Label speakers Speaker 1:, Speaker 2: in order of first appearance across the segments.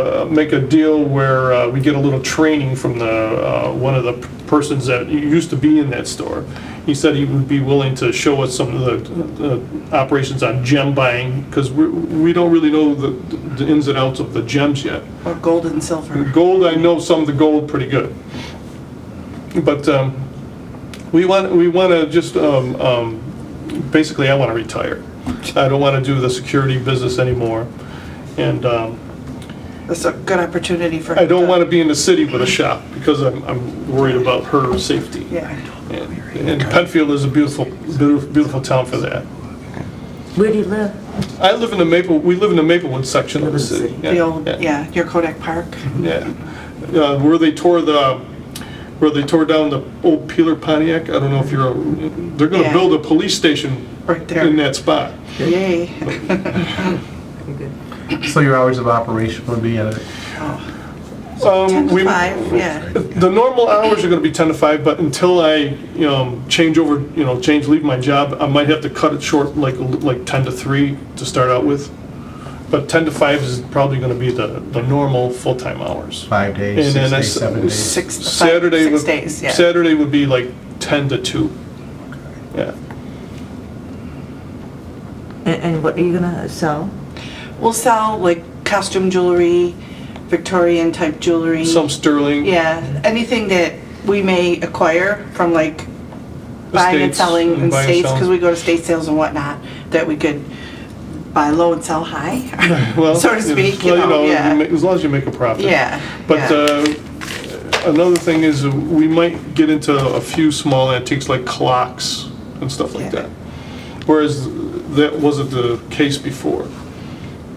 Speaker 1: uh, make a deal where uh, we get a little training from the, uh, one of the persons that used to be in that store. He said he would be willing to show us some of the uh, operations on gem buying, because we we don't really know the the ins and outs of the gems yet.
Speaker 2: Or gold and silver.
Speaker 1: Gold, I know some of the gold pretty good. But um, we want, we want to just, um, um, basically, I want to retire. I don't want to do the security business anymore. And um,
Speaker 2: That's a good opportunity for.
Speaker 1: I don't want to be in the city with a shop because I'm, I'm worried about her safety.
Speaker 2: Yeah.
Speaker 1: And and Penfield is a beautiful, beautiful beautiful town for that.
Speaker 3: Where do you live?
Speaker 1: I live in the Maple, we live in the Maplewood section of the city.
Speaker 2: The old, yeah, your Kodak Park.
Speaker 1: Yeah, Uh, where they tore the, where they tore down the old Peeler Pontiac, I don't know if you're, they're gonna
Speaker 2: Yeah.
Speaker 1: build a police station
Speaker 2: Right there.
Speaker 1: in that spot.
Speaker 2: Yay.
Speaker 4: So your hours of operation would be at,
Speaker 1: Um,
Speaker 2: 10
Speaker 1: we-
Speaker 2: to 5, yeah.
Speaker 1: The normal hours are gonna be 10 to 5, but until I, you know, change over, you know, change, leave my job, I might have to cut it short, like, like 10 to 3 to start out with. But 10 to 5 is probably gonna be the, the normal full-time hours.
Speaker 4: five
Speaker 1: And
Speaker 4: days,
Speaker 1: then
Speaker 4: six days,
Speaker 1: that's-
Speaker 4: seven days?
Speaker 2: Six, five-
Speaker 1: Saturday
Speaker 2: six
Speaker 1: would,
Speaker 2: days, yeah.
Speaker 1: Saturday would be like 10 to 2. Yeah.
Speaker 3: And, and what are you gonna sell?
Speaker 2: We'll sell like costume jewelry, Victorian type jewelry.
Speaker 1: Some sterling.
Speaker 2: Yeah, anything that we may acquire from like buying and
Speaker 1: Estates,
Speaker 2: selling in
Speaker 1: buying and
Speaker 2: states, because
Speaker 1: selling.
Speaker 2: we go to state sales and whatnot, that we could buy low and sell high,
Speaker 1: Well,
Speaker 2: so to
Speaker 1: you know,
Speaker 2: speak,
Speaker 1: well,
Speaker 2: you know, yeah.
Speaker 1: make- As long as you make a profit.
Speaker 2: Yeah,
Speaker 1: But
Speaker 2: yeah.
Speaker 1: uh, another thing is, uh, we might get into a few small antiques like clocks and stuff like
Speaker 2: Yeah.
Speaker 1: that. Whereas that wasn't the case before.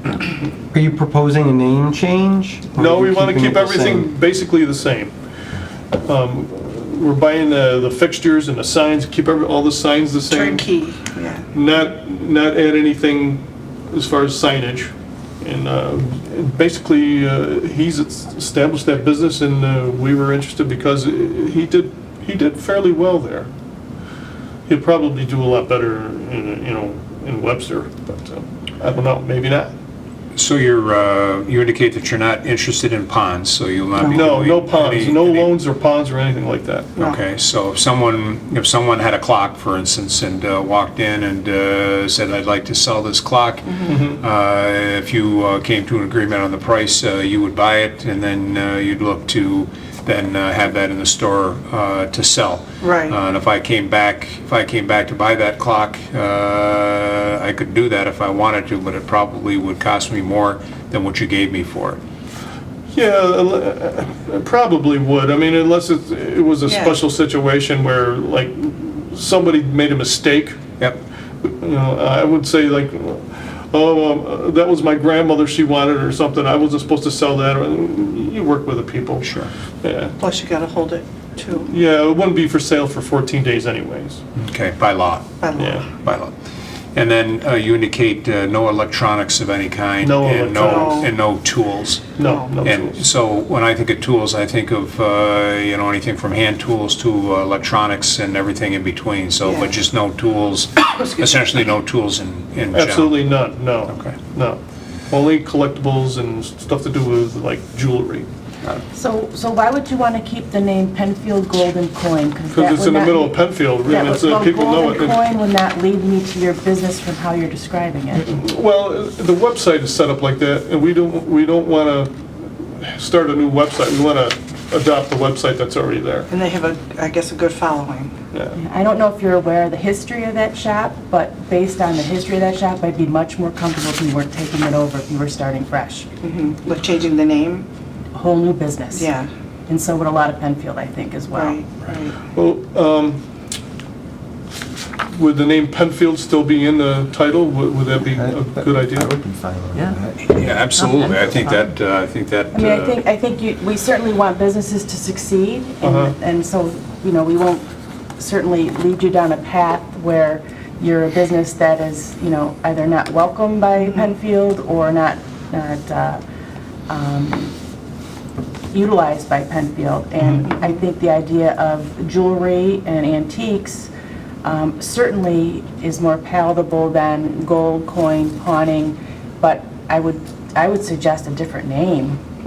Speaker 5: Are you proposing a name change? or are
Speaker 1: No,
Speaker 5: you
Speaker 1: we want to
Speaker 5: keeping it
Speaker 1: keep
Speaker 5: the
Speaker 1: everything
Speaker 5: same?
Speaker 1: basically the same. Um, We're buying the the fixtures and the signs, keep every- all the signs the same.
Speaker 2: Turnkey, yeah.
Speaker 1: not, not add anything as far as signage. And uh, basically, uh, he's established that business and uh, we were interested because he did, he did fairly well there. He'd probably do a lot better, in, you know, in Webster, but uh, I don't know, maybe not.
Speaker 6: So you're, uh, you indicate that you're not interested in ponds, so you'll not be...
Speaker 1: No,
Speaker 6: doing
Speaker 1: no ponds,
Speaker 6: any-
Speaker 1: no
Speaker 6: any-
Speaker 1: loans or ponds or anything like that.
Speaker 6: Okay, so if someone, if someone had a clock, for instance, and uh, walked in and uh, said, "I'd like to sell this clock," uh, if you uh, came to an agreement on the price, uh, you would buy it, and then uh, you'd look to then uh, have that in the store uh, to sell.
Speaker 2: Right.
Speaker 6: Uh, And if I came back, if I came back to buy that clock, uh, I could do that if I wanted to, but it probably would cost me more than what you gave me for it.
Speaker 1: Yeah, uh, it probably would. I mean, unless it, it was a
Speaker 2: Yeah.
Speaker 1: special situation where like somebody made a mistake
Speaker 6: Yep.
Speaker 1: you know, I would say like, oh, um, that was my grandmother, she wanted it or something, I wasn't supposed to sell that, or- you work with the people.
Speaker 6: Sure.
Speaker 1: Yeah,
Speaker 2: Plus you gotta hold it too,
Speaker 1: yeah, it wouldn't be for sale for 14 days anyways,
Speaker 6: Okay, by law.
Speaker 2: by law.
Speaker 1: yeah.
Speaker 6: by law. And then uh, you indicate uh, no electronics of any kind?
Speaker 1: No
Speaker 6: and
Speaker 1: electronics.
Speaker 6: And no tools?
Speaker 1: No, no
Speaker 6: And
Speaker 1: tools.
Speaker 6: so when I think of tools, I think of, uh, you know, anything from hand tools to uh, electronics and everything in between. So,
Speaker 2: Yeah.
Speaker 6: but just no tools, essentially no tools in in general?
Speaker 1: Absolutely none, no.
Speaker 6: Okay.
Speaker 1: No. Only collectibles and stuff to do with like jewelry,
Speaker 7: So, so why would you want to keep the name Penfield Golden Coin? that
Speaker 1: because it's
Speaker 7: would
Speaker 1: in the
Speaker 7: not
Speaker 1: middle
Speaker 7: be-
Speaker 1: of Penfield,
Speaker 7: that
Speaker 1: and it's,
Speaker 7: would-
Speaker 1: uh,
Speaker 7: well,
Speaker 1: people know it.
Speaker 7: Golden Coin would not lead me to your business from how you're describing it.
Speaker 1: Well, the website is set up like that, and we don't, we don't want to start a new website, we want to adopt the website that's already there,
Speaker 2: And they have a, I guess, a good following.
Speaker 1: yeah.
Speaker 7: I don't know if you're aware of the history of that shop, but based on the history of that shop, I'd be much more comfortable if you weren't taking it over, if you were starting fresh.
Speaker 2: Like changing the name,
Speaker 7: A Whole new business.
Speaker 2: yeah,
Speaker 7: And so would a lot of Penfield, I think, as well.
Speaker 2: right, right.
Speaker 1: Well, um, would the name Penfield still be in the title? Would would that be
Speaker 4: I-
Speaker 1: a good
Speaker 4: I
Speaker 1: idea?
Speaker 4: would be fine with
Speaker 3: Yeah.
Speaker 4: that.
Speaker 6: Yeah, absolutely. I think that, uh, I think that...
Speaker 7: I mean, I
Speaker 6: uh,
Speaker 7: think, I think you, we certainly want businesses to succeed,
Speaker 1: Uh-huh.
Speaker 7: and, and so, you know, we won't certainly lead you down a path where you're a business that is, you know, either not welcomed by Penfield or not, not, uh, um, utilized by Penfield. And I think the idea of jewelry and antiques um, certainly is more palatable than gold coin pawning, but I would, I would suggest a different name